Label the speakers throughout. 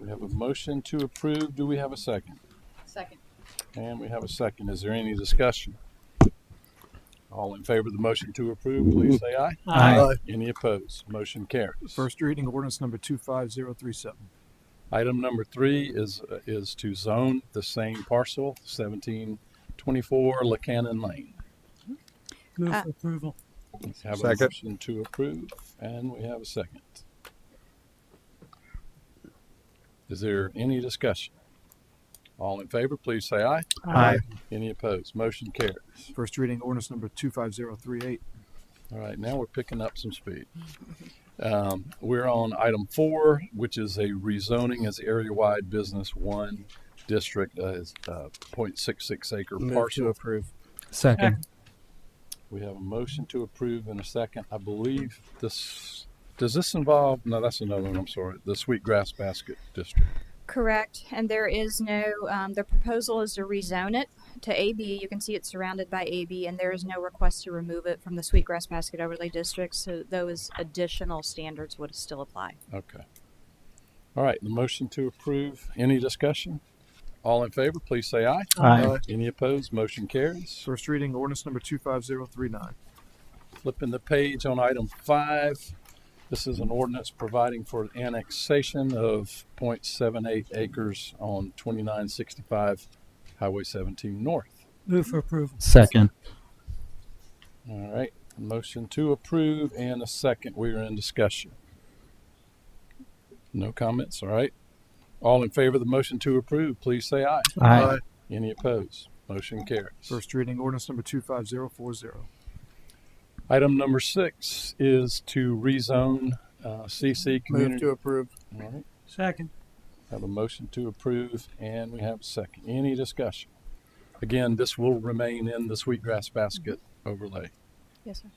Speaker 1: We have a motion to approve. Do we have a second?
Speaker 2: Second.
Speaker 1: And we have a second. Is there any discussion? All in favor of the motion to approve, please say aye.
Speaker 3: Aye.
Speaker 1: Any opposed? Motion carries.
Speaker 3: First reading ordinance number 25037.
Speaker 1: Item number three is, is to zone the same parcel, seventeen twenty-four Lacannon Lane.
Speaker 4: Move
Speaker 5: Uh,
Speaker 4: for approval.
Speaker 1: We Have a
Speaker 6: Second.
Speaker 1: motion to approve, and we have a second. Is there any discussion? All in favor, please say aye.
Speaker 6: Aye.
Speaker 1: Any opposed? Motion carries.
Speaker 3: First reading ordinance number 25038.
Speaker 1: All right, now we're picking up some speed. Um, we're on item four, which is a rezoning as area-wide business one district, uh, is, uh, point six six acre
Speaker 6: Move
Speaker 1: parcel.
Speaker 6: to approve.
Speaker 4: Second.
Speaker 1: We have a motion to approve in a second. I believe this, does this involve, no, that's another one, I'm sorry, the Sweet Grass Basket District.
Speaker 5: Correct, and there is no, um, the proposal is to rezone it to AB. You can see it's surrounded by AB, and there is no request to remove it from the Sweetgrass Basket Overlay District, so those additional standards would still apply.
Speaker 1: Okay. All right, the motion to approve. Any discussion? All in favor, please say aye.
Speaker 3: Aye.
Speaker 1: Any opposed? Motion carries.
Speaker 3: First reading ordinance number 25039.
Speaker 1: Flipping the page on item five. This is an ordinance providing for annexation of 0.78 acres on twenty-nine sixty-five Highway seventeen north.
Speaker 4: Move for approval.
Speaker 7: Second.
Speaker 1: All right, motion to approve and a second. We are in discussion. No comments, all right? All in favor of the motion to approve, please say aye.
Speaker 7: Aye.
Speaker 1: Any opposed? Motion carries.
Speaker 3: First reading ordinance number 25040.
Speaker 1: Item number six is to rezone uh, CC
Speaker 6: Move
Speaker 1: Community.
Speaker 6: to approve.
Speaker 1: All right,
Speaker 4: Second.
Speaker 1: have a motion to approve and we have a second. Any discussion? Again, this will remain in the Sweetgrass Basket overlay.
Speaker 5: Yes, sir.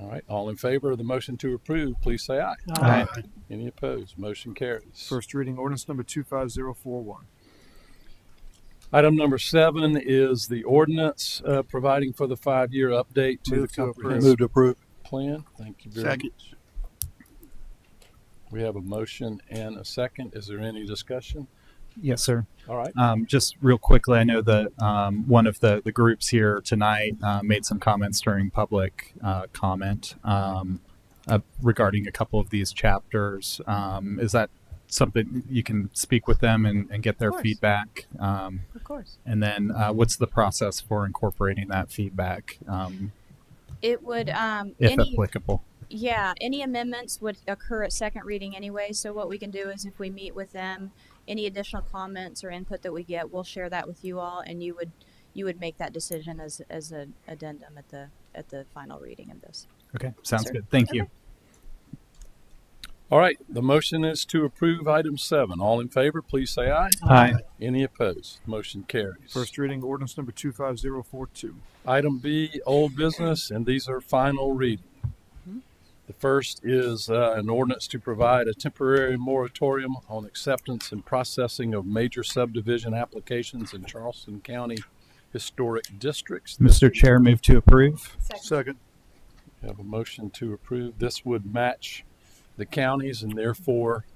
Speaker 1: All right, all in favor of the motion to approve, please say aye.
Speaker 7: Aye.
Speaker 1: Any opposed? Motion carries.
Speaker 3: First reading ordinance number 25041.
Speaker 1: Item number seven is the ordinance uh, providing for the five-year update to the
Speaker 6: Move to approve.
Speaker 1: comprehensive
Speaker 6: Move to approve.
Speaker 1: plan. Thank you very
Speaker 6: Second.
Speaker 1: much. We have a motion and a second. Is there any discussion?
Speaker 7: Yes, sir.
Speaker 1: All right,
Speaker 7: Um, just real quickly, I know that um, one of the, the groups here tonight uh, made some comments during public uh, comment um, uh, regarding a couple of these chapters. Um, is that something you can speak with them and, and get their
Speaker 5: course.
Speaker 7: feedback? Um,
Speaker 5: Of course.
Speaker 7: and then uh, what's the process for incorporating that feedback, um,
Speaker 5: It would, um,
Speaker 7: if
Speaker 5: any,
Speaker 7: applicable?
Speaker 5: yeah, any amendments would occur at second reading anyway, so what we can do is if we meet with them, any additional comments or input that we get, we'll share that with you all, and you would, you would make that decision as, as an addendum at the, at the final reading of this.
Speaker 7: Okay, sounds
Speaker 5: Sure.
Speaker 7: good. Thank you.
Speaker 1: all right. The motion is to approve item seven. All in favor, please say aye.
Speaker 7: Aye.
Speaker 1: Any opposed? Motion carries.
Speaker 3: First reading ordinance number 25042.
Speaker 1: Item B, old business, and these are final reading. The first is uh, an ordinance to provide a temporary moratorium on acceptance and processing of major subdivision applications in Charleston County Historic Districts.
Speaker 7: Mr. Chair, move to approve.
Speaker 2: Second.
Speaker 6: Second.
Speaker 1: We Have a motion to approve. This would match the counties and therefore,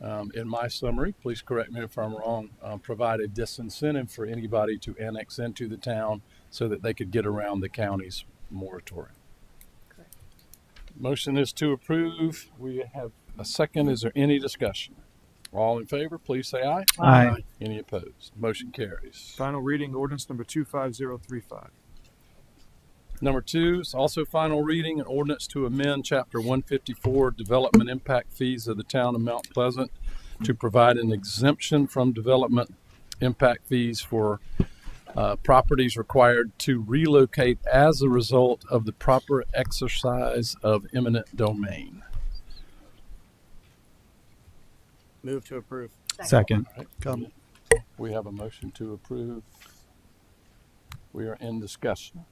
Speaker 1: um, in my summary, please correct me if I'm wrong, uh, provide a disincentive for anybody to annex into the town so that they could get around the county's moratorium.
Speaker 2: Correct.
Speaker 1: Motion is to approve. We have a second. Is there any discussion? All in favor, please say aye.
Speaker 7: Aye.
Speaker 1: Any opposed? Motion carries.
Speaker 3: Final reading ordinance number 25035.
Speaker 1: Number two is also final reading, an ordinance to amend Chapter 154 Development Impact Fees of the Town of Mount Pleasant to provide an exemption from development impact fees for uh, properties required to relocate as a result of the proper exercise of eminent domain.
Speaker 6: Move to approve.
Speaker 7: Second.
Speaker 6: Come.
Speaker 1: We have a motion to approve. We are in discussion.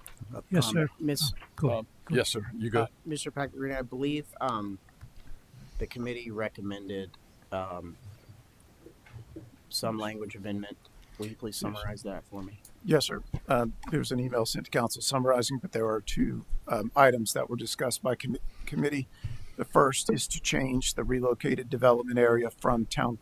Speaker 4: Yes,
Speaker 8: Um,
Speaker 4: sir. Oh,
Speaker 8: Miss,
Speaker 4: Go
Speaker 1: Um, Yes, sir, you go.
Speaker 8: uh, Mr. Packard, I believe, um, the committee recommended, um, some language amendment. Will you please summarize that for me?
Speaker 9: Yes, sir. Um, There was an email sent to council summarizing, but there are two um, items that were discussed by commi- committee. The first is to change the relocated development area from town